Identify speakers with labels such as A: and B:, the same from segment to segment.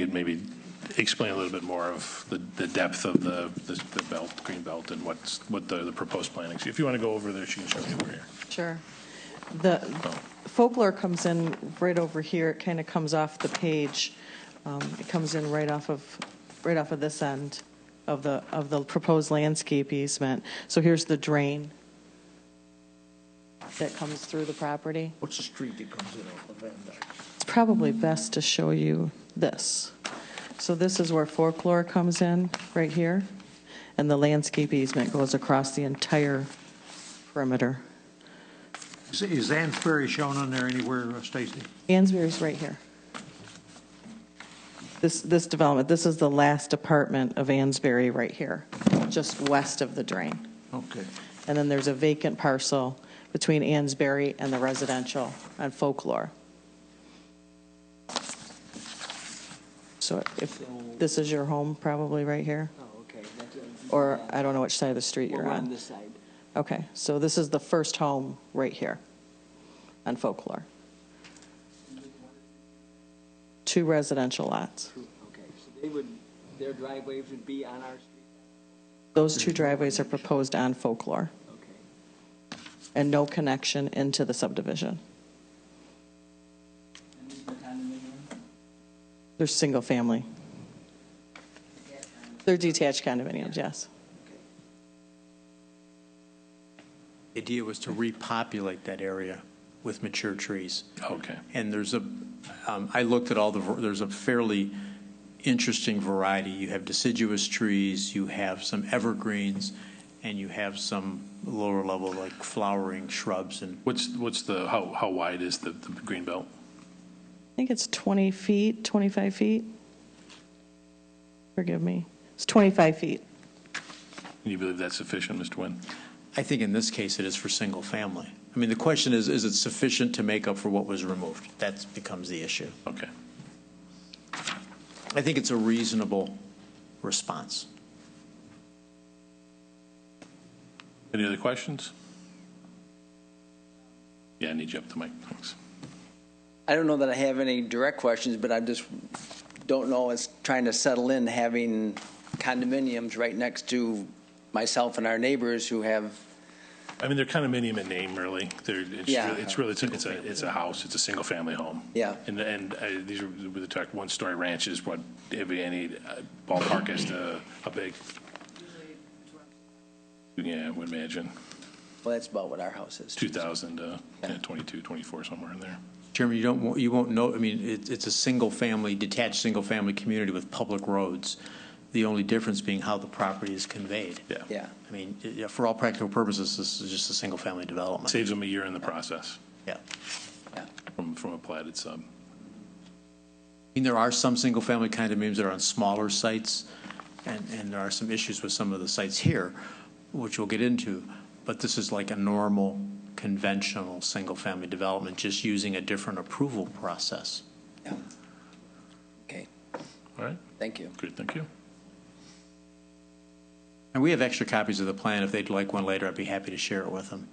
A: You'd maybe explain a little bit more of the, the depth of the, the the belt, green belt, and what's, what the, the proposed planning. If you want to go over there, she can show you over here.
B: Sure. The folklore comes in right over here, it kind of comes off the page. Um, It comes in right off of, right off of this end of the, of the proposed landscape easement. So here's the drain that comes through the property.
C: What's the street that comes in off of Van Dyke?
B: It's probably best to show you this. So this is where folklore comes in, right here, and the landscape easement goes across the entire perimeter.
D: Is- Is Ann's Ferry shown on there anywhere, uh, Stacy?
B: Ansbury's right here. This, this development, this is the last apartment of Ansbury right here, just west of the drain.
D: Okay.
B: And then there's a vacant parcel between Ansbury and the residential on Folklore. So if, this is your home probably right here,
C: Oh, okay. That's, uh,
B: or I don't know which side of the street
C: We're
B: you're
C: on
B: on.
C: this side.
B: Okay, so this is the first home right here on Folklore. Two residential lots.
C: Okay, so they would, their driveways would be on our street?
B: Those two driveways are proposed on Folklore
C: Okay.
B: and no connection into the subdivision.
C: And these are condominium?
B: They're single-family. They're detached condominiums, yes.
E: The idea was to repopulate that area with mature trees.
A: Okay.
E: And there's a, um, I looked at all the, there's a fairly interesting variety. You have deciduous trees, you have some evergreens, and you have some lower level like flowering shrubs and
A: What's, what's the, how, how wide is the, the green belt?
B: I think it's 20 feet, 25 feet. Forgive me. It's 25 feet.
A: Do you believe that's sufficient, Mr. Nguyen?
E: I think in this case, it is for single family. I mean, the question is, is it sufficient to make up for what was removed? That becomes the issue.
A: Okay.
E: I think it's a reasonable response.
A: Any other questions? Yeah, I need you up to mic, thanks.
F: I don't know that I have any direct questions, but I just don't know, it's trying to settle in having condominiums right next to myself and our neighbors who have,
A: I mean, they're condominium in name, really. They're, it's
F: Yeah.
A: really, it's really, it's a, it's a, it's a house, it's a single-family home.
F: Yeah.
A: And, and uh, these are, we talked, one-story ranches, what, if any uh, ballpark as to how big? Yeah, I would imagine,
F: well, that's about what our house is.
A: 2,000, uh, yeah, 22, 24, somewhere in there.
E: Chairman, you don't, want- you won't know, I mean, it's, it's a single-family, detached, single-family community with public roads. The only difference being how the property is conveyed.
A: Yeah.
F: Yeah.
E: I mean, i- yeah, for all practical purposes, this is just a single-family development.
A: Saves them a year in the process
E: Yeah. I
A: from, from a platted sub.
E: mean, there are some single-family condominiums that are on smaller sites, and, and there are some issues with some of the sites here, which we'll get into, but this is like a normal, conventional, single-family development, just using a different approval process.
F: Okay,
A: All right,
F: thank you.
A: great, thank you.
E: And we have extra copies of the plan. If they'd like one later, I'd be happy to share it with them.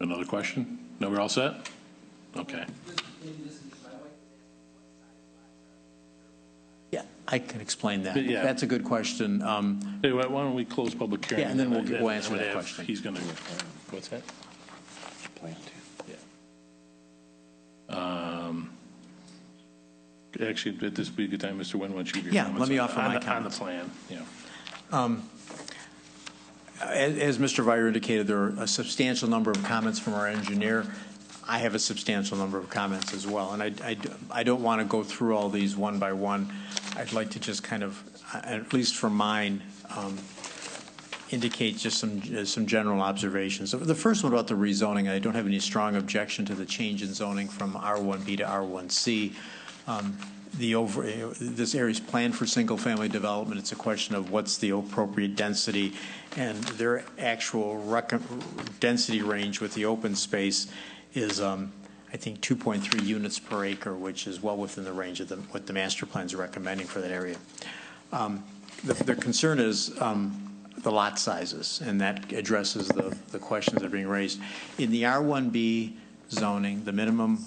A: Another question? No, we're all set? Okay.
E: Yeah, I can explain that.
A: Yeah.
E: That's a good question. Um,
A: Hey, why why don't we close public hearing?
E: Yeah, and then we'll
A: I-
E: get- we'll answer
A: I'm gonna
E: that
A: have-
E: question.
A: He's going to, what's that? Plan, too. Um, Actually, would this be a good time, Mr. Nguyen, why don't you give your
E: Yeah,
A: comments?
E: let me
A: on-
E: offer
A: on
E: my
A: the-
E: comments.
A: On the plan, yeah.
E: As as Mr. Vire indicated, there are a substantial number of comments from our engineer. I have a substantial number of comments as well, and I- I d- I don't want to go through all these one by one. I'd like to just kind of, uh, at least for mine, um, indicate just some, uh, some general observations. So The first one about the rezoning, I don't have any strong objection to the change in zoning from R1B to R1C. Um, The over, uh, this area's planned for single-family development, it's a question of what's the appropriate density and their actual rec- density range with the open space is, um, I think, 2.3 units per acre, which is well within the range of the, what the master plan's recommending for that area. Um, the- Their concern is um, the lot sizes, and that addresses the the questions that are being raised. In the R1B zoning, the minimum